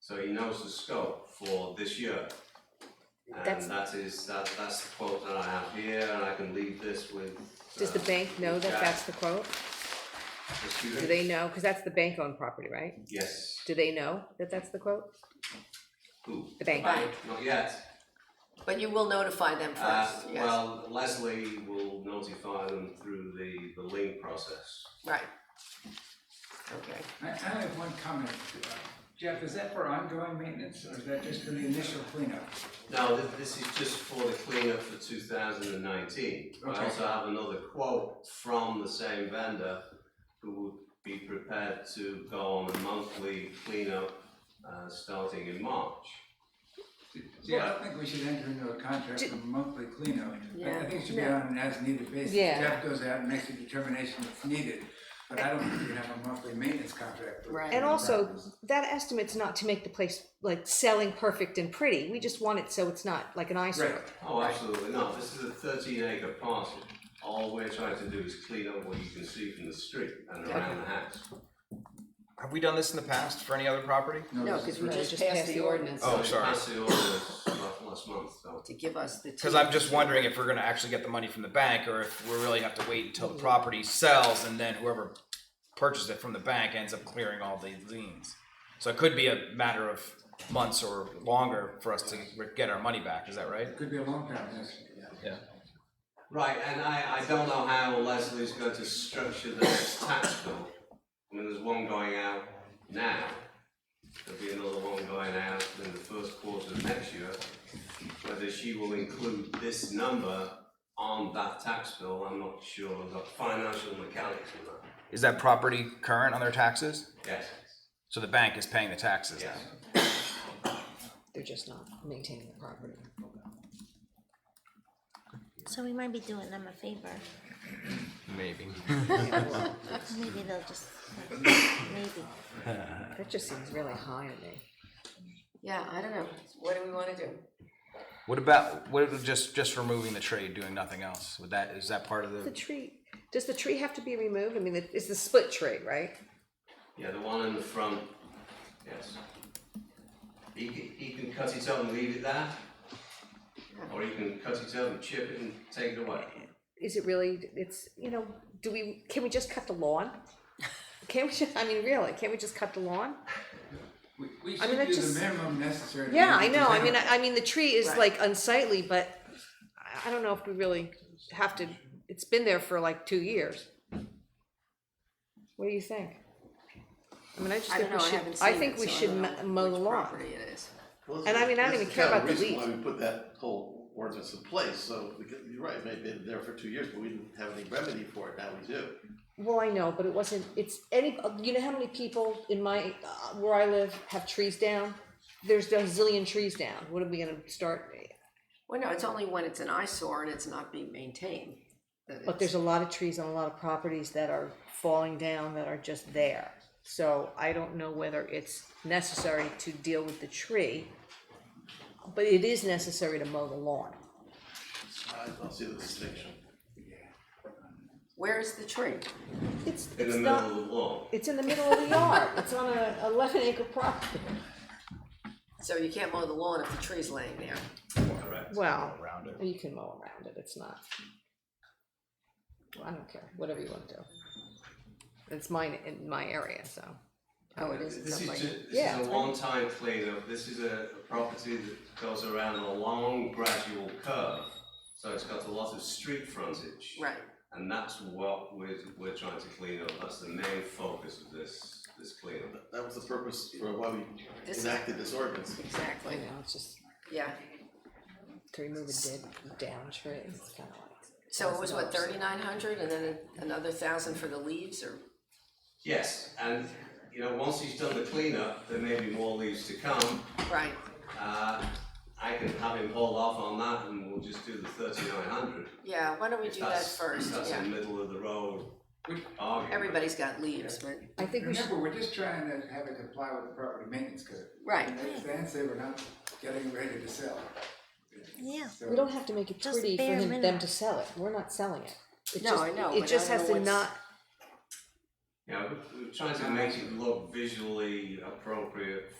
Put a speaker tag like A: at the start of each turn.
A: So he knows the scope for this year. And
B: That's-
A: that is, that, that's the quote that I have here, and I can leave this with.
B: Does the
A: uh,
B: bank know that
A: Jack.
B: that's the quote?
A: The
B: Do
A: student?
B: they know? Because that's the bank owned property, right?
A: Yes.
B: Do they know that that's the quote?
A: Who?
B: The bank.
A: Bank, not yet.
C: But you will notify them
A: Uh,
C: first, yes,
A: well, Leslie will notify them through the, the link process.
C: right. Okay,
D: I, I only have one comment. uh, Jeff, is that for ongoing maintenance or is that just for the initial cleanup?
A: Now, th- this is just for the cleanup for two thousand and nineteen. I
D: Okay.
A: also have another quote from the same vendor who would be prepared to go on a monthly cleanup, uh, starting in March.
D: See, I don't think we should enter into a contract for monthly cleanup. I- I think it should be
B: Yeah.
D: on an as-needed basis.
B: Yeah.
D: Jeff goes out and makes a determination that's needed, but I don't think we have a monthly maintenance contract. with
C: Right.
B: And
D: the
B: also,
D: properties.
B: that estimate's not to make the place like selling perfect and pretty. We just want it so it's not like an eyesore.
D: Right.
A: Oh, absolutely not. This is a thirteen acre parcel. All we're trying to do is clean up what you can see from the street and around the house.
E: Have we done this in the past for any other property?
C: no,
D: this is
C: cause we
B: No,
C: just
B: just
C: passed the ordinance
E: Oh,
A: So
E: sorry.
A: I passed the ordinance last- last month, so.
C: to give us the.
E: Because I'm just wondering if we're gonna actually get the money from the bank, or if we really have to wait until the property sells, and then whoever purchased it from the bank ends up clearing all the liens. So it could be a matter of months or longer for us to re- get our money back, is that right?
D: Could be a long time, yes.
E: Yeah.
A: Right, and I, I don't know how Leslie's going to structure the next tax bill. I mean, there's one going out now. There'll be another one going out in the first quarter of next year. Whether she will include this number on that tax bill, I'm not sure of the financial mechanics of that.
E: Is that property current on their taxes?
A: Yes,
E: So the bank is paying the taxes now?
A: yes.
B: They're just not maintaining the property.
F: So we might be doing them a favor.
E: Maybe.
F: Maybe they'll just, maybe.
B: That just seems really high to me.
C: Yeah, I don't know, what do we wanna do?
E: What about, what if just, just removing the trade, doing nothing else? Would that, is that part of
B: The
E: the,
B: tree, does the tree have to be removed? I mean, it- it's the split tree, right?
A: Yeah, the one in the front, yes. He can, he can cut it up and leave it there. Or he can cut it up and chip it and take it away.
B: Is it really, it's, you know, do we, can we just cut the lawn? Can't we, ju- I mean, really, can't we just cut the lawn?
D: We, we
B: mean, that
D: should do
B: just-
D: the minimum necessary. to
B: Yeah, I
D: make it
B: know, I
D: presentable.
B: mean, I, I mean, the tree is
C: Right.
B: like unsightly, but I- I don't know if we really have to, it's been there for like two years. What do you think? I mean, I just
C: I don't
B: think
C: know,
B: we
C: I
B: should,
C: haven't seen
B: I
C: it,
B: think we
C: so I
B: should
C: don't know
B: mo- mow the
C: which
B: lawn.
C: Property it is,
G: Well,
B: And I mean, I don't
G: this
B: even
G: is
B: care
G: kinda
B: about the
G: reason Why
B: leaves.
G: we put that whole ordinance in place, so, because, you're right, maybe been there for two years, but we didn't have any remedy for it, now we do.
B: Well, I know, but it wasn't, it's any, you know how many people in my, uh, where I live have trees down? There's a zillion trees down, what are we gonna start?
C: well, no, it's only when it's an eyesore and it's not being maintained. that
B: But there's
C: it's-
B: a lot of trees on a lot of properties that are falling down that are just there. So I don't know whether it's necessary to deal with the tree, but it is necessary to mow the lawn.
G: I don't see the distinction.
C: Where is the tree?
B: It's,
A: In
B: it's
A: the middle of
B: not,
A: the lawn.
B: it's in the middle of the yard, it's on a eleven acre property.
C: So you can't mow the lawn if the tree's laying there.
A: Correct.
B: Well,
E: around it?
B: you can mow around it, it's not. Well, I don't care, whatever you want to do. It's mine, in my area, so.
C: Oh, it is, it's
A: This is
C: up like,
A: ju- this
B: Yeah,
A: is
B: it's
A: a
B: right.
A: one-time cleanup, this is a a property that goes around a long gradual curve. So it's got a lot of street frontage.
C: right,
A: And that's what we're, we're trying to clean up, that's the main focus of this, this cleanup.
G: That was the purpose for why we
C: This-
G: enacted this ordinance.
B: I
C: exactly,
B: know, it's just.
C: yeah.
B: to remove a dead down tree, it's kind of like.
C: So it was what,
B: $1,000.
C: thirty-nine hundred and then another thousand for the leaves or?
A: Yes, and, you know, once he's done the cleanup, there may be more leaves to come.
C: Right,
A: Uh, I can have him hold off on that and we'll just do the thirty-nine hundred.
C: yeah, why don't we do that first,
A: That's a
C: yeah.
A: middle of the road
D: We-
A: argument.
C: Everybody's got leaves, but,
B: I think we should,
D: Remember, we're just trying to have it comply with the property maintenance code.
C: Right.
D: And they- they say we're not getting ready to sell.
F: Yeah.
D: So-
B: we don't have to make it
F: Just
B: pretty for
F: bare
B: him- them
F: minimum.
B: to sell it, we're not selling it. It
C: No,
B: just-
C: I know,
B: It
C: but
B: just
C: I don't
B: has
C: know
B: to
C: what's-
B: not,
A: Yeah, we- we're trying to make it look visually appropriate